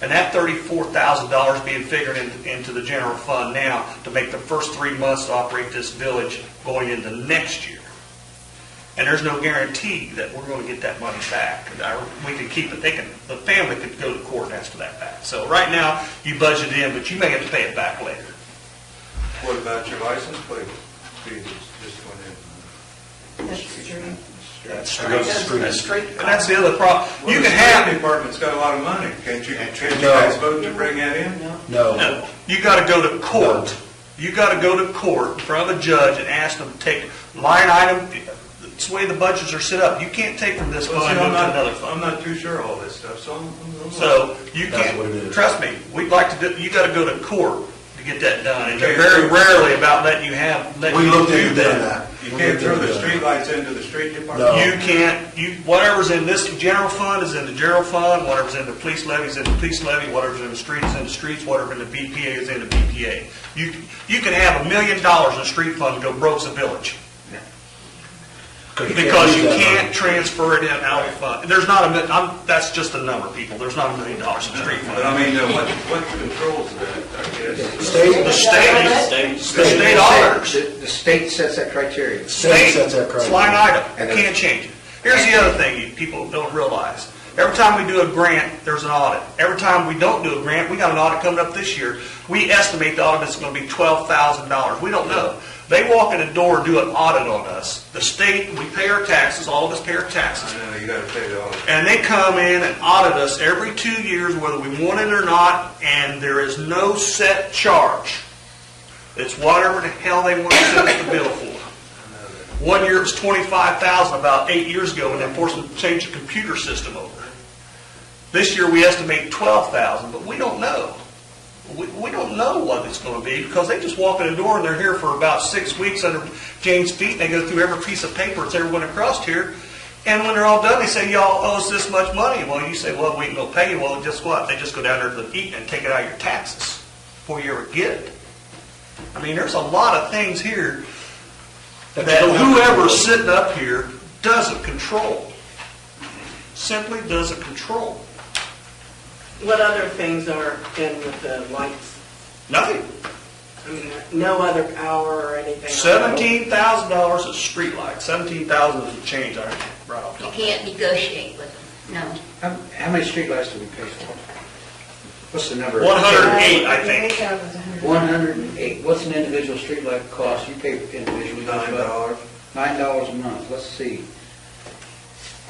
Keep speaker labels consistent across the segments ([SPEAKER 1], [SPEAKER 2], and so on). [SPEAKER 1] And that thirty-four thousand dollars being figured in- into the general fund now to make the first three months to operate this village going into next year. And there's no guarantee that we're gonna get that money back. And I- We can keep it, they can, the family could go to court and ask for that back. So right now, you budget in, but you may have to pay it back later.
[SPEAKER 2] What about your license plate fees just went in?
[SPEAKER 3] That's true.
[SPEAKER 1] That's
[SPEAKER 4] It goes to street.
[SPEAKER 1] That's street. And that's the other problem. You can
[SPEAKER 2] The
[SPEAKER 1] have,
[SPEAKER 2] department's got a lot of money. Can't you, can't you
[SPEAKER 4] No.
[SPEAKER 2] guys vote to bring that in?
[SPEAKER 3] No.
[SPEAKER 4] No,
[SPEAKER 1] no, you gotta go to court. You gotta go to court in front of a judge and ask them to take line item, it's the way the budgets are set up. You can't take from this
[SPEAKER 2] Well, see,
[SPEAKER 1] fund
[SPEAKER 2] I'm
[SPEAKER 1] and move to
[SPEAKER 2] not,
[SPEAKER 1] another fund.
[SPEAKER 2] I'm not too sure all this stuff, so I'm- I'm. I'm-
[SPEAKER 1] So you
[SPEAKER 4] That's what it
[SPEAKER 1] can't,
[SPEAKER 4] is.
[SPEAKER 1] trust me, we'd like to do, you gotta go to court to get that done. And they're
[SPEAKER 2] Okay.
[SPEAKER 1] very rarely about letting you have, letting
[SPEAKER 4] we
[SPEAKER 1] you
[SPEAKER 4] looked
[SPEAKER 1] do
[SPEAKER 4] into
[SPEAKER 1] that.
[SPEAKER 4] that.
[SPEAKER 2] You
[SPEAKER 4] We
[SPEAKER 2] can't
[SPEAKER 4] looked
[SPEAKER 2] throw
[SPEAKER 4] into
[SPEAKER 2] the
[SPEAKER 4] that.
[SPEAKER 2] streetlights into the street department?
[SPEAKER 4] No.
[SPEAKER 1] You can't, you, whatever's in this general fund is in the general fund, whatever's in the police levy is in the police levy, whatever's in the streets is in the streets, whatever in the BPA is in the BPA. You, you can have a million dollars in the street fund and go broke the village, because you
[SPEAKER 4] use that
[SPEAKER 1] can't
[SPEAKER 4] money.
[SPEAKER 1] transfer it in out of fund. There's not a, mi- I'm, that's just a number, people, there's not a million dollars in the street fund.
[SPEAKER 2] But I mean, uh, what, what controls that, I guess?
[SPEAKER 4] State,
[SPEAKER 1] The state, the state auditors.
[SPEAKER 5] The the state sets that criteria.
[SPEAKER 4] State sets that criteria.
[SPEAKER 1] It's line item,
[SPEAKER 5] And
[SPEAKER 1] you
[SPEAKER 5] it-
[SPEAKER 1] can't change it. Here's the other thing you people don't realize. Every time we do a grant, there's an audit. Every time we don't do a grant, we got an audit coming up this year. We estimate the audit is gonna be twelve thousand dollars. We don't know. They walk in the door and do an audit on us. The state, we pay our taxes, all of us pay our taxes.
[SPEAKER 2] I know, you gotta pay the audit.
[SPEAKER 1] And they come in and audit us every two years, whether we want it or not, and there is no set charge. It's whatever the hell they want to send us the bill for. One year it was twenty-five thousand about eight years ago, and they forced them to change the computer system over. This year, we estimate twelve thousand, but we don't know. We, we don't know what it's gonna be, because they just walk in the door and they're here for about six weeks under Jane's feet, and they go through every piece of paper that's ever went across here. And when they're all done, they say, y'all owe us this much money. Well, you say, well, we ain't gonna pay you. Well, guess what? They just go down there to the eat and take it out of your taxes before you ever get it. I mean, there's a lot of things here
[SPEAKER 4] That
[SPEAKER 1] that
[SPEAKER 4] you don't have
[SPEAKER 1] whoever's
[SPEAKER 4] control.
[SPEAKER 1] sitting up here doesn't control. Simply doesn't control.
[SPEAKER 3] What other things are in with the lights?
[SPEAKER 1] Nothing.
[SPEAKER 3] I mean, no other power or anything?
[SPEAKER 1] Seventeen thousand dollars is streetlight, seventeen thousand is the change, I right off the
[SPEAKER 6] You
[SPEAKER 1] top.
[SPEAKER 6] can't negotiate with them, no.
[SPEAKER 5] How how many streetlights do we pay for? What's the number?
[SPEAKER 1] One hundred and eight, I think.
[SPEAKER 5] 108. What's an individual streetlight cost? You pay individually.
[SPEAKER 2] Nine dollars.
[SPEAKER 5] Nine dollars a month, let's see.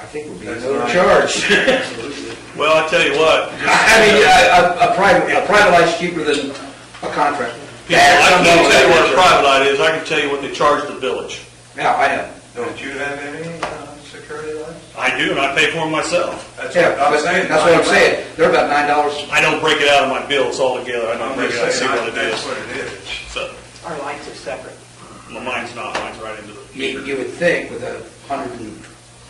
[SPEAKER 5] I think we'll be
[SPEAKER 2] That's nine.
[SPEAKER 5] overcharged.
[SPEAKER 2] Absolutely.
[SPEAKER 1] Well, I tell you what,
[SPEAKER 5] I mean, a- a, a private, a private light's cheaper than a contract.
[SPEAKER 1] people, I can tell you what a private light is, I can tell you what they charge the village.
[SPEAKER 5] Yeah, I know.
[SPEAKER 2] Don't you have any, uh, security lights?
[SPEAKER 1] I do, and I pay for them myself.
[SPEAKER 2] That's
[SPEAKER 5] Yeah,
[SPEAKER 2] what I'm saying.
[SPEAKER 5] That's what I'm saying. They're about nine dollars.
[SPEAKER 1] I don't break it out of my bills altogether, I don't
[SPEAKER 2] I'm
[SPEAKER 1] break it out,
[SPEAKER 2] just
[SPEAKER 1] see
[SPEAKER 2] saying,
[SPEAKER 1] what it
[SPEAKER 2] that's
[SPEAKER 1] is.
[SPEAKER 2] what it is.
[SPEAKER 1] So,
[SPEAKER 3] Our lights are separate.
[SPEAKER 1] my mind's not, mine's right into the
[SPEAKER 5] You, you would think with a hundred and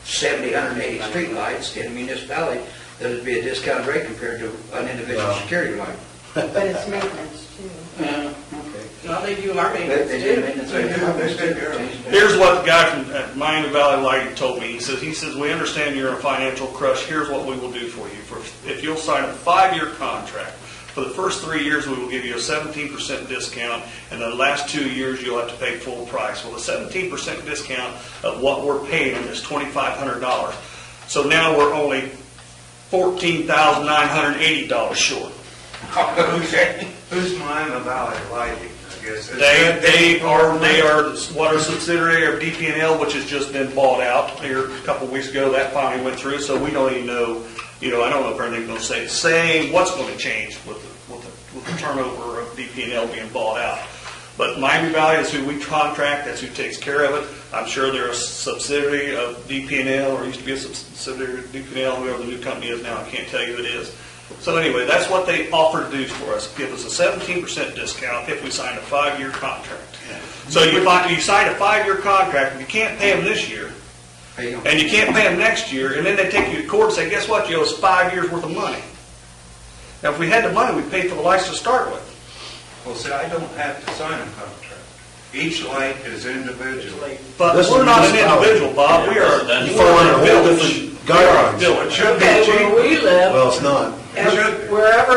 [SPEAKER 5] seventy, hundred and eighty streetlights in a municipality, there'd be a discounted rate compared to an individual
[SPEAKER 4] No.
[SPEAKER 5] security light.
[SPEAKER 7] But it's maintenance too.
[SPEAKER 5] Okay.
[SPEAKER 3] Well, they do our
[SPEAKER 5] They-
[SPEAKER 3] maintenance
[SPEAKER 5] they do
[SPEAKER 3] too.
[SPEAKER 5] maintenance.
[SPEAKER 2] They do, they take care of it.
[SPEAKER 1] Here's what the guy from at Miami Valley Lighting told me. He says, he says, we understand you're in a financial crush. Here's what we will do for you. For, if you'll sign a five-year contract, for the first three years, we will give you a seventeen percent discount, and the last two years, you'll have to pay full price. Well, the seventeen percent discount of what we're paying them is twenty-five hundred dollars. So now we're only fourteen thousand nine hundred eighty dollars short.
[SPEAKER 2] Who's- Who's Miami Valley Lighting, I guess?
[SPEAKER 1] They,
[SPEAKER 2] Is that-
[SPEAKER 1] they are, they are what are subsidiary of DPNL, which has just been bought out here a couple of weeks ago. That finally went through, so we don't even know, you know, I don't know if anything's gonna stay the same, what's gonna change with the, with the, with the turnover of DPNL being bought out. But Miami Valley is who we contract, that's who takes care of it. I'm sure they're a subsidiary of DPNL, or used to be a subsidiary of DPNL, whoever the new company is now, I can't tell you who it is. So anyway, that's what they offered to do for us, give us a seventeen percent discount if we signed a five-year contract. So you find, you sign a five-year contract, and you can't pay them this year,
[SPEAKER 5] Pay them.
[SPEAKER 1] and you can't pay them next year, and then they take you to court and say, guess what, you owe us five years worth of money. Now, if we had the money, we'd pay for the license to start with.
[SPEAKER 2] Well, see, I don't have to sign a contract. Each light is individual.
[SPEAKER 1] But
[SPEAKER 4] This is
[SPEAKER 1] we're not an
[SPEAKER 4] municipality.
[SPEAKER 1] individual, Bob, we are,
[SPEAKER 4] You
[SPEAKER 1] fall
[SPEAKER 4] fall under
[SPEAKER 1] under
[SPEAKER 4] a whole
[SPEAKER 1] village.
[SPEAKER 4] different
[SPEAKER 1] We are a
[SPEAKER 4] guidelines.
[SPEAKER 1] Village.
[SPEAKER 2] Should be
[SPEAKER 3] But
[SPEAKER 2] cheap.
[SPEAKER 3] where we live,
[SPEAKER 4] Well, it's not.
[SPEAKER 3] And
[SPEAKER 2] Should be.
[SPEAKER 3] Wherever